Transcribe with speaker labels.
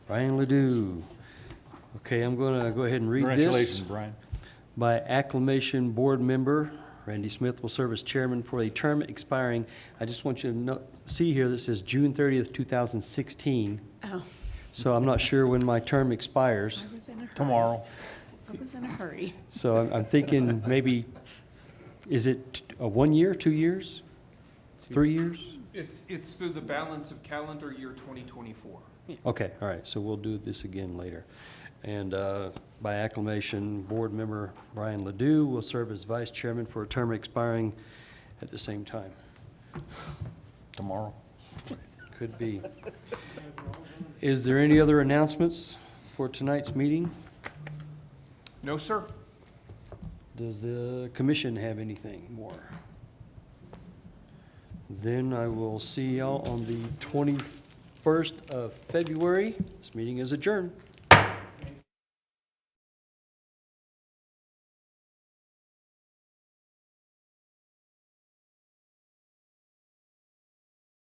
Speaker 1: Brian Ledoux. Okay, I'm going to go ahead and read this.
Speaker 2: Congratulations, Brian.
Speaker 1: By acclamation, board member Randy Smith will serve as chairman for a term expiring, I just want you to know, see here, this says June 30th, 2016.
Speaker 3: Oh,
Speaker 1: So I'm not sure when my term expires.
Speaker 3: I was in a hurry.
Speaker 2: Tomorrow.
Speaker 3: I was in a hurry.
Speaker 1: So I'm- I'm thinking maybe, is it t- a one year, two years, three years?
Speaker 4: It's, it's through the balance of calendar year 2024.
Speaker 1: Okay, all right, so we'll do this again later. And uh, by acclamation, Board Member Brian Ledoux will serve as vice chairman for a term expiring at the same time.
Speaker 2: Tomorrow.
Speaker 1: Could be. Is there any other announcements for tonight's meeting?
Speaker 4: No, sir.
Speaker 1: Does the commission have anything more? Then I will see y'all on the 21st of February. This meeting is adjourned.